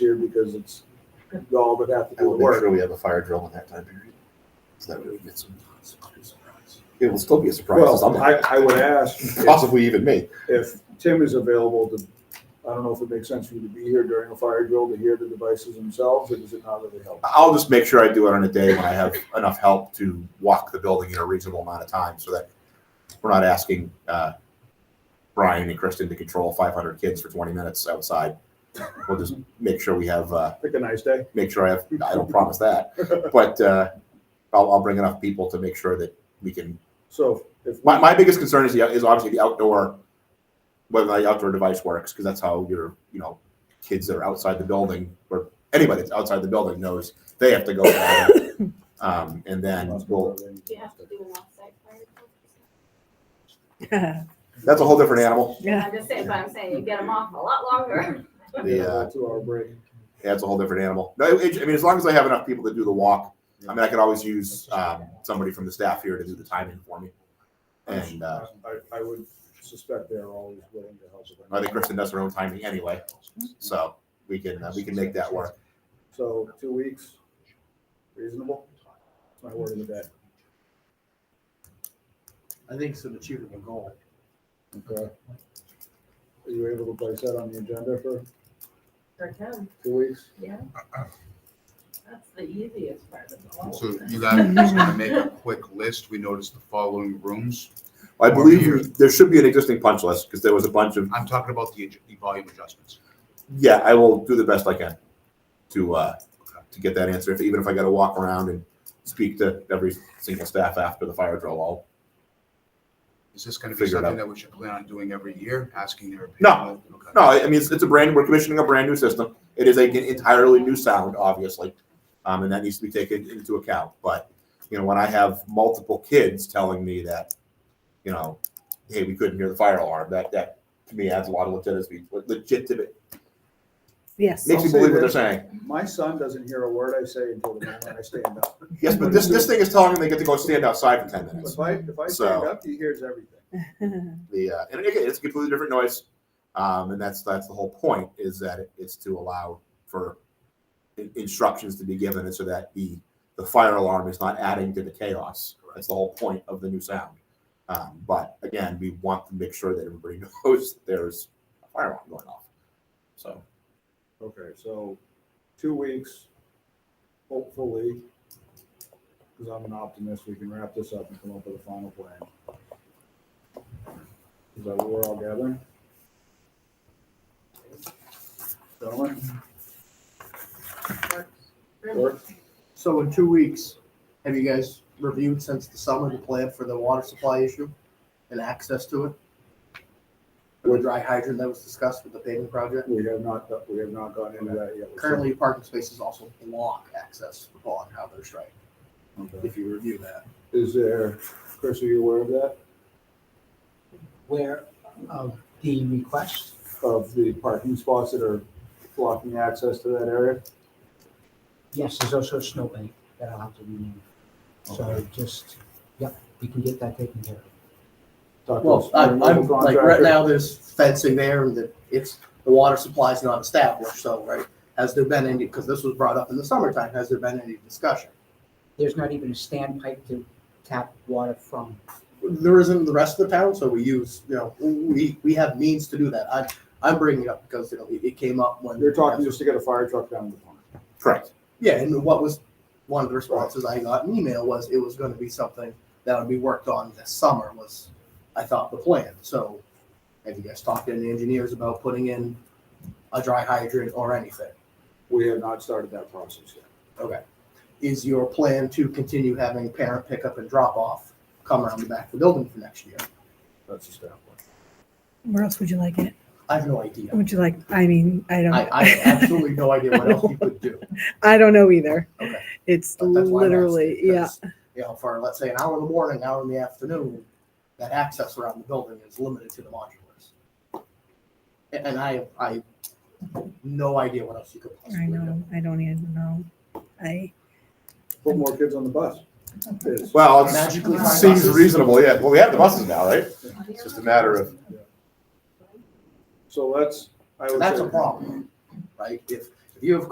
year because it's y'all that have to I do the will make work. sure we have a fire drill in that time period. So that way we get some. It will still be a surprise. to Well, somebody. I, I would ask if, Possibly even me. if Tim is available to, I don't know if it makes sense for you to be here during a fire drill to hear the devices themselves, or does it not really help? I'll just make sure I do it on a day when I have enough help to walk the building in a reasonable amount of time so that we're not asking uh, Brian and Kristen to control 500 kids for 20 minutes outside. We'll just make sure we have, uh, Pick a nice day. make sure I have, I don't promise that, but uh, I'll, I'll bring enough people to make sure that we can So if, My, my biggest concern is the, is obviously the outdoor, whether the outdoor device works, because that's how your you know kids that are outside the building or anybody that's outside the building knows they have to go. down. um, and then we'll, Do you have to do an offsite fire? drill? Yeah. that's a whole different animal. I'm just saying, but I'm saying you get them off a lot longer. The uh, Two hour break. that's a whole different animal. No, it, it- I mean as long as I have enough people to do the walk, I mean I could always use um, somebody from the staff here to do the timing for me. And uh, I, I would suspect they're always willing to help. with I think Kristen does her own timing anyway, so we can uh, we can make that work. So two weeks, reasonable? That's my word of the day. I think it's an achievable goal. Okay. Are you able to place that on the agenda for For him, two weeks? yeah. That's the easiest part of the whole. So you guys are just gonna make a quick list. We noticed the following rooms. I Or beer. believe there should be an existing punch list because there was a bunch of, I'm talking about the, adj- the volume adjustments. yeah, I will do the best I can to, uh, to get that answer. If, even if I gotta walk around and speak to every single staff after the fire drill, I'll, Is this gonna be Figure it out. something that we should plan on doing every year, asking their opinion? No. Okay. no, I I mean, it's, it's a brand, we're commissioning a brand new system. It is a- an entirely new sound, obviously. Um, and that needs to be taken into account. But, you know, when I have multiple kids telling me that, you know, hey, we couldn't hear the fire alarm, that, that to me adds a lot of legitimacy, legitimate, Yes. makes me believe what they're saying. My son doesn't hear a word I say until the moment I stand up. Yes, but this this thing is telling them they get to go stand outside for ten minutes. If I, if I stand So- up, he hears everything. The uh, and again, it's a completely different noise, um, and that's that's the whole point is that it, it's to allow for in- instructions to be given, and so that the the fire alarm is not adding to the chaos. That's the whole point of the new sound. Um, but again, we want to make sure that everybody knows that there's a fire alarm going off. So Okay, so two weeks, hopefully, because I'm an optimist, we can wrap this up and come up with a final plan. Is that what we're all gathering? Gentlemen, work? So in two weeks, have you guys reviewed since the summer the plan for the water supply issue and access to it? Or the dry hydrant that was discussed with the paving project? we have not, do- we have not gone into that yet. Currently, parking spaces also block access for Paul and Howard Drive, Okay. if you review that. Is there, Chris, are you aware of that, where of the request. of the parking spots that are blocking access to that area? Yes, there's also a snowbank that I'll have to remove. So just, yep, we can get that taken care of. Talk to Well, us, I, our I'm, local like, right contractor. now, there's fencing there and that it's, the water supply's not established, so, right? Has there been any, because this was brought up in the summertime, has there been any discussion? There's not even a standpipe to tap water from. there isn't in the rest of the town, so we use, you know, we, we have means to do that. I, I'm bringing it up because, you know, it, it came up when. You're talking just to get a fire truck down to the pond. correct. Yeah, and what was, one of the responses I got in email was it was gonna be something that would be worked on this summer was, I thought, the plan, so. Have you guys talked to any engineers about putting in a dry hydrant or anything? We have not started that process yet. Is your plan to continue having parent pickup and drop off come around the back of the building for next year? That's a step one. Where else would you like it? I have no idea. Would you like, I mean, I don't. I, I have absolutely no idea what else you could do. I don't know either. Okay. It's But that's why I'm literally, asking, yeah. 'cause, You know, for let's say an hour in the morning, hour in the afternoon, that access around the building is limited to the modulars. And, and I, I, no idea what else you could I possibly do. know. I don't even know. I, Put more kids on the bus. Yes. Well, it Magically find seems buses? reasonable. Yeah. Well, we have the buses now, right? It's just a matter of So let's, I would That's a say, problem, right? If, If you have